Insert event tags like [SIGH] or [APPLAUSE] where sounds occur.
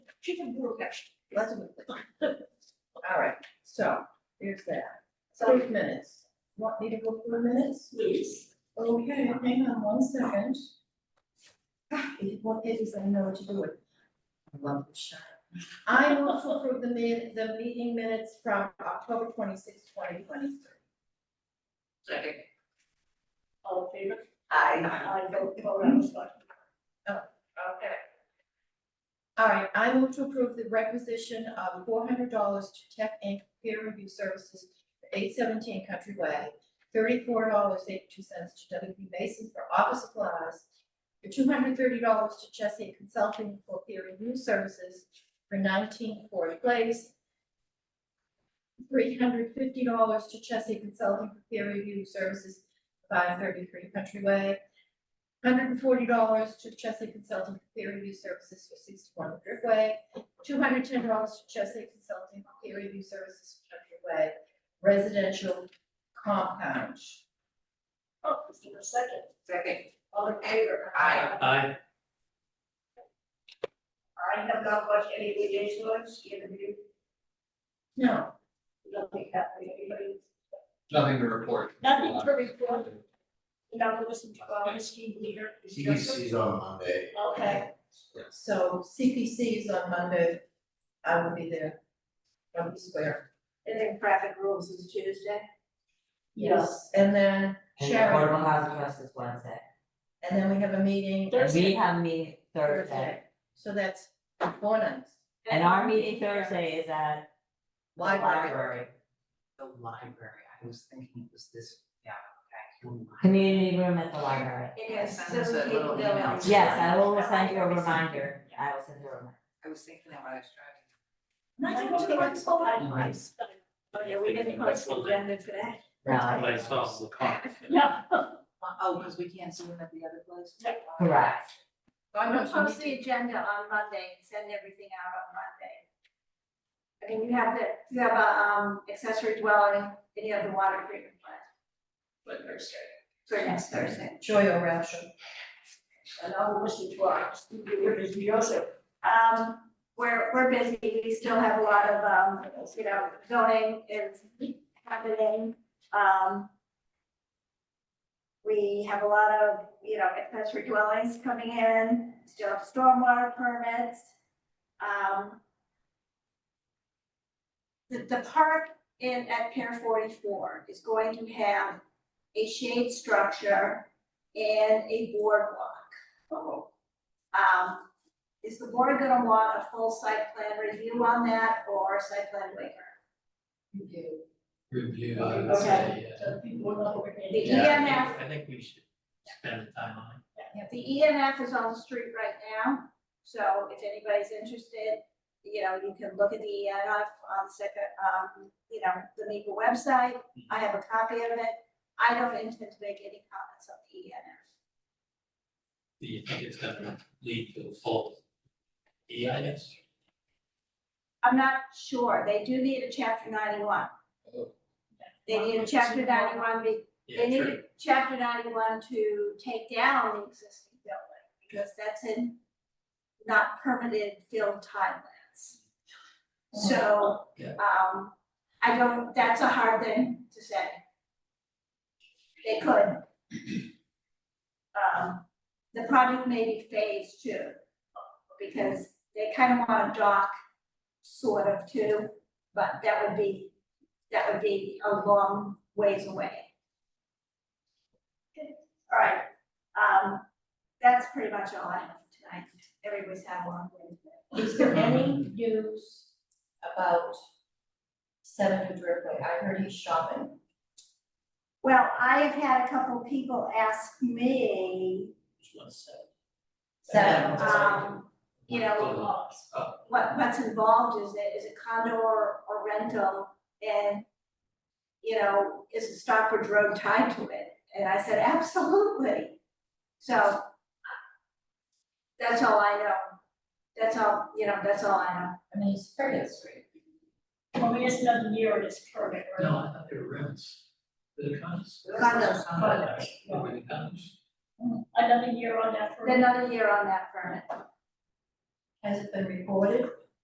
She can do it. Let's move it. [LAUGHS] All right, so here's that. So minutes. Want me to go through the minutes? Please. Okay, hang on one second. [SIGHS] Ah, it- What pages I know what to do with. I love the shot. I move to approve the min, the meeting minutes from October twenty sixth, twenty twenty three. Second. All in favor? Aye. I vote for on this one. Okay. All right, I move to approve the requisition of four hundred dollars to Tech Inc. Peer Review Services for eight seventeen Country Way, thirty-four dollars eighty-two cents to W P Mason for office supplies, for two hundred thirty dollars to Chesapeake Consulting for peer review services for nineteen Ford Place, three hundred fifty dollars to Chesapeake Consulting for peer review services, five thirty-three Country Way, hundred and forty dollars to Chesapeake Consulting for peer review services for sixty-one Driftway, two hundred ten dollars to Chesapeake Consulting for peer review services for Driftway residential compound. Oh, is there a second? Second. All in favor? Aye. Aye. I have not watched any of the days ones, given you, No, nothing happening, anybody, Nothing to report. nothing to report. You don't listen to our esteemed uh, leader. Mr. CDC's on Monday. Okay, so CPC is on Monday, I will be there, Rumpke Square. and then traffic rules is Tuesday. And then And the Sharon, affordable housing trust is Wednesday. and then we have a meeting And Thursday. we have meeting Thursday, Thursday, so that's four nights, and our meeting Thursday is at the library. library, The library, I was thinking it was this, yeah, okay. community room at the library. It has Send us that seventeen little email. buildings. Yes, I will send you a reminder, I will send you a reminder. I was thinking that when I was driving. I don't think it's all that Mm-hmm. Nice. Oh, yeah, we didn't post the agenda today. No, I- I saw the car. [LAUGHS] No. Oh, because we can't see them at the other place? Yep. correct, I know she Post needs the agenda on Monday and send everything out on Monday. I mean, you have the, you have a um accessory dwelling, then you have the water treatment plant. For Thursday. For next Thursday. to joy or ration. And I will listen to our, we're busy also. Um, we're, we're busy, we still have a lot of, um, you know, zoning is happening, um. We have a lot of, you know, accessory dwellings coming in, still have stormwater permits, um. The, the park in, at Pier forty-four is going to have a shade structure and a boardwalk. Oh. Um, is the board gonna want a full site plan review on that or a site plan waiver? Review, I would Okay. say, yeah. The EMF, uh, I think we should spend the time on the EMF is on the street right now, so if anybody's interested, you know, you can look at the EMF on the second, um, you know, the NEPA website. I have a copy of it. I don't intend to make any comments on the E EMF. it. Do you think it's gonna lead to a full E EIS? I'm not sure. They do need a chapter ninety-one. They need a chapter ninety-one be, Yeah, They need true. a chapter ninety-one to take down the existing building, because that's in not permitted filled timelines. So, Yeah. um, I don't, that's a hard thing to say. They could. Um, the project may be phased too, because they kind of want to dock sort of too, but that would be, that would be a long ways away. All right, um, that's pretty much all I have tonight. Everybody's had one. Is there any news about Senator Driftway? I heard he's shopping. Well, I have had a couple people ask me, Just one second. Seven. um, you know, Hold on. what, what's involved is it, is it condo or, or rental? And, you know, is the Stockbridge Road tied to it? And I said, absolutely. So that's all I know. That's all, you know, that's all I know. I mean, it's very straight. Well, we just another year on this permit, No, right? I thought they were rents. The cons? Condos, condos. Oh, the cons. Another year on that permit. Another year on that permit. Has it been reported?